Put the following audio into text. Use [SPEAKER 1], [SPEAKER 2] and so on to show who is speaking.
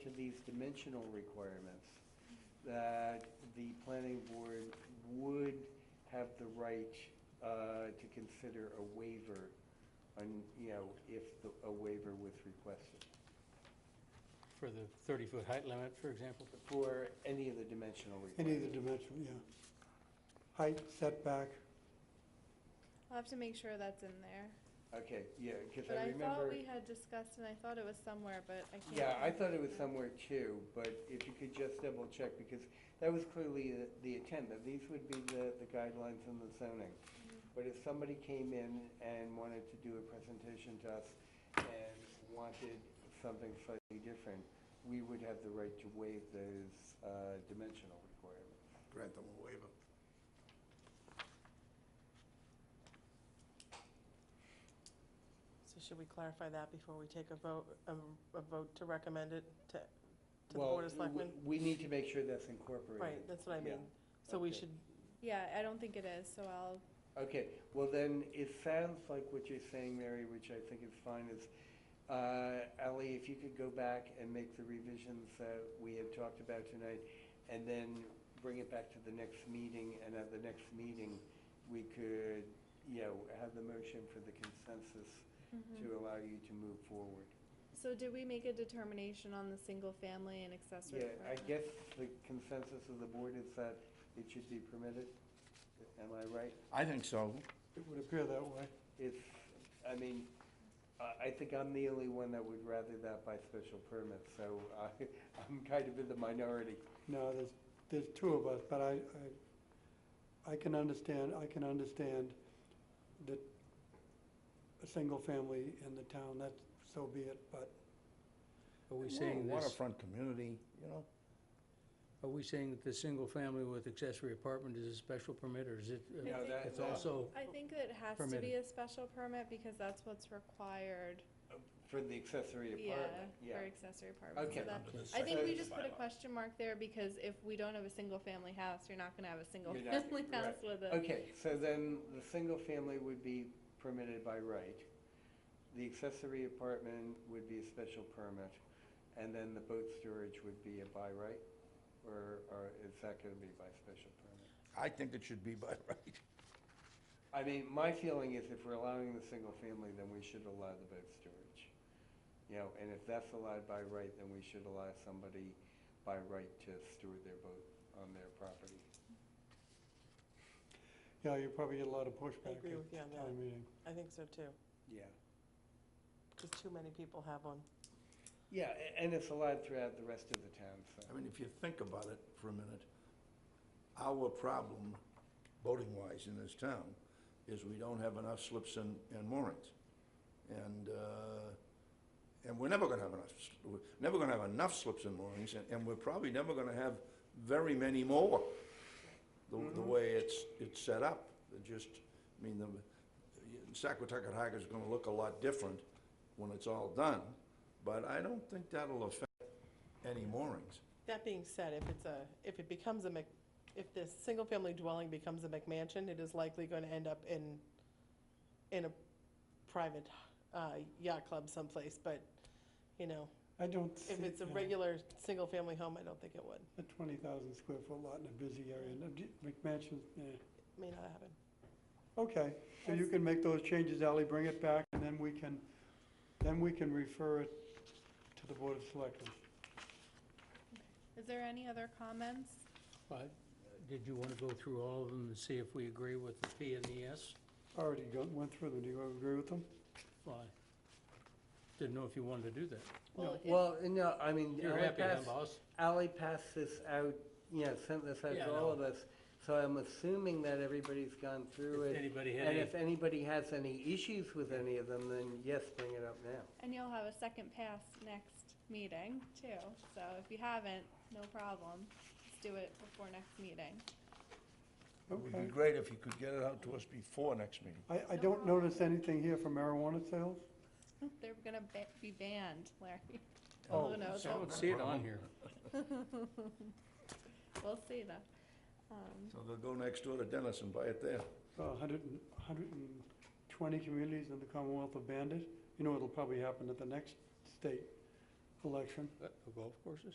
[SPEAKER 1] these dimensional requirements, that the planning board would have the right uh, to consider a waiver, on, you know, if the- a waiver was requested,
[SPEAKER 2] For the 30-foot height limit, for example?
[SPEAKER 1] for any of the dimensional
[SPEAKER 3] Any of the
[SPEAKER 1] requirements.
[SPEAKER 3] dimension, yeah. Height, setback,
[SPEAKER 4] I'll have to make sure that's in there.
[SPEAKER 1] Okay, yeah, because
[SPEAKER 4] But
[SPEAKER 1] I
[SPEAKER 4] I thought
[SPEAKER 1] remember,
[SPEAKER 4] we had discussed, and I thought it was somewhere, but I can't.
[SPEAKER 1] yeah, I
[SPEAKER 4] remember.
[SPEAKER 1] thought it was somewhere too, but if you could just double check, because that was clearly the- the intent, that these would be the the guidelines and the zoning. But if somebody came in and wanted to do a presentation to us and wanted something slightly different, we would have the right to waive those uh, dimensional requirements.
[SPEAKER 5] grant them a waiver.
[SPEAKER 6] So should we clarify that before we take a vote, a, a vote to recommend it to, to the
[SPEAKER 1] Well,
[SPEAKER 6] Board of Selectmen?
[SPEAKER 1] w- We need to make sure that's incorporated.
[SPEAKER 6] Right, that's what I
[SPEAKER 1] yeah,
[SPEAKER 6] mean. So we
[SPEAKER 1] okay.
[SPEAKER 6] should,
[SPEAKER 4] Yeah, I don't think it is, so I'll,
[SPEAKER 1] Okay, well then, it sounds like what you're saying, Mary, which I think is fine, is, uh, Ally, if you could go back and make the revisions that we had talked about tonight, and then bring it back to the next meeting, and at the next meeting, we could, you know, have the motion for the consensus to allow you to move forward.
[SPEAKER 4] mm-hmm. so did we make a determination on the single family and accessory?
[SPEAKER 1] Yeah, I
[SPEAKER 4] apartment?
[SPEAKER 1] guess the consensus of the board is that it should be permitted, am I right?
[SPEAKER 5] I think so.
[SPEAKER 3] it would appear that way.
[SPEAKER 1] It's, I mean, I, I think I'm the only one that would rather that by special permit, so I, I'm kind of in the minority.
[SPEAKER 3] No, there's, there's two of us, but I, I, I can understand, I can understand that a single family in the town, that, so be it, but
[SPEAKER 2] Are we
[SPEAKER 5] We're a
[SPEAKER 2] saying this,
[SPEAKER 5] Waterfront community, you know?
[SPEAKER 2] are we saying that the single family with accessory apartment is a special permit, or is it, uh,
[SPEAKER 4] No, that-
[SPEAKER 2] it's also,
[SPEAKER 4] I think it has to be a special permit because that's what's required,
[SPEAKER 1] Uh, For the accessory
[SPEAKER 4] yeah,
[SPEAKER 1] apartment, yeah.
[SPEAKER 4] for accessory apartments.
[SPEAKER 1] Okay.
[SPEAKER 4] So that-
[SPEAKER 5] Under the
[SPEAKER 4] I think we
[SPEAKER 5] second
[SPEAKER 4] just put a
[SPEAKER 5] bylaw.
[SPEAKER 4] question mark there because if we don't have a single family house, you're not gonna have a single
[SPEAKER 1] You're not-
[SPEAKER 4] family
[SPEAKER 1] right.
[SPEAKER 4] house with it.
[SPEAKER 1] Okay, so then the single family would be permitted by right. The accessory apartment would be a special permit, and then the boat storage would be a by right? Or, or is that gonna be by special permit?
[SPEAKER 5] I think it should be by right.
[SPEAKER 1] I mean, my feeling is if we're allowing the single family, then we should allow the boat storage. You know, and if that's allowed by right, then we should allow somebody by right to store their boat on their property.
[SPEAKER 3] yeah, you probably get a lot of pushback
[SPEAKER 6] agree with you on
[SPEAKER 3] at
[SPEAKER 6] that.
[SPEAKER 3] town meeting.
[SPEAKER 6] I think so too,
[SPEAKER 1] Yeah.
[SPEAKER 6] because too many people have one.
[SPEAKER 1] Yeah, a- and it's allowed throughout the rest of the town,
[SPEAKER 5] I
[SPEAKER 1] so.
[SPEAKER 5] mean, if you think about it for a minute, our problem, boating-wise in this town, is we don't have enough slips and, and moorings. And, uh, and we're never gonna have enough, s- we're never gonna have enough slips and moorings, and, and we're probably never gonna have very many more, the, the way it's, it's set up. It just, I mean, the, Saquotucket Hike is gonna look a lot different when it's all done, but I don't think that'll affect any moorings.
[SPEAKER 6] That being said, if it's a, if it becomes a Mc, if this single-family dwelling becomes a McMansion, it is likely going to end up in, in a private uh, yacht club someplace, but, you know,
[SPEAKER 3] I don't see.
[SPEAKER 6] if it's a
[SPEAKER 3] yeah,
[SPEAKER 6] regular, single-family home, I don't think it would.
[SPEAKER 3] A twenty thousand square foot lot in a busy area, and a d- McMansion, yeah.
[SPEAKER 6] May not happen.
[SPEAKER 3] Okay, so you can make those changes, Ally, bring it back, and then we can, then we can refer it to the Board of Selectmen.
[SPEAKER 4] Is there any other comments?
[SPEAKER 2] but uh, did you want to go through all of them and see if we agree with the P and the S?
[SPEAKER 3] Already gone, went through them, do you agree with them?
[SPEAKER 2] Well, I Didn't know if you wanted to do that.
[SPEAKER 4] Well, if-
[SPEAKER 1] Well, no, I mean,
[SPEAKER 2] You're
[SPEAKER 1] Ally
[SPEAKER 2] happy, huh,
[SPEAKER 1] passed-
[SPEAKER 2] boss?
[SPEAKER 1] Ally passed this out, you know, sent this out
[SPEAKER 2] Yeah, I
[SPEAKER 1] to all of
[SPEAKER 2] know.
[SPEAKER 1] us, so I'm assuming that everybody's gone through
[SPEAKER 2] If
[SPEAKER 1] it.
[SPEAKER 2] anybody had
[SPEAKER 1] And
[SPEAKER 2] any-
[SPEAKER 1] if anybody has any issues with any of them, then yes, bring it up now.
[SPEAKER 4] And you'll have a second pass next meeting too, so if you haven't, no problem, just do it before next meeting.
[SPEAKER 5] It would
[SPEAKER 3] Okay.
[SPEAKER 5] be great if you could get it out to us before next meeting.
[SPEAKER 3] I, I don't
[SPEAKER 4] problem.
[SPEAKER 3] notice anything here for marijuana sales.
[SPEAKER 4] They're gonna ba- be banned, Larry.
[SPEAKER 3] Oh,
[SPEAKER 4] Oh, no,
[SPEAKER 2] I
[SPEAKER 4] so
[SPEAKER 2] don't see it on here.
[SPEAKER 4] we'll see that. Um,
[SPEAKER 5] So they'll go next door to Dennis and buy it there.
[SPEAKER 3] A hundred and, a hundred and twenty communities in the Commonwealth of Bandit. You know, it'll probably happen at the next state election.
[SPEAKER 2] Uh, Golf courses?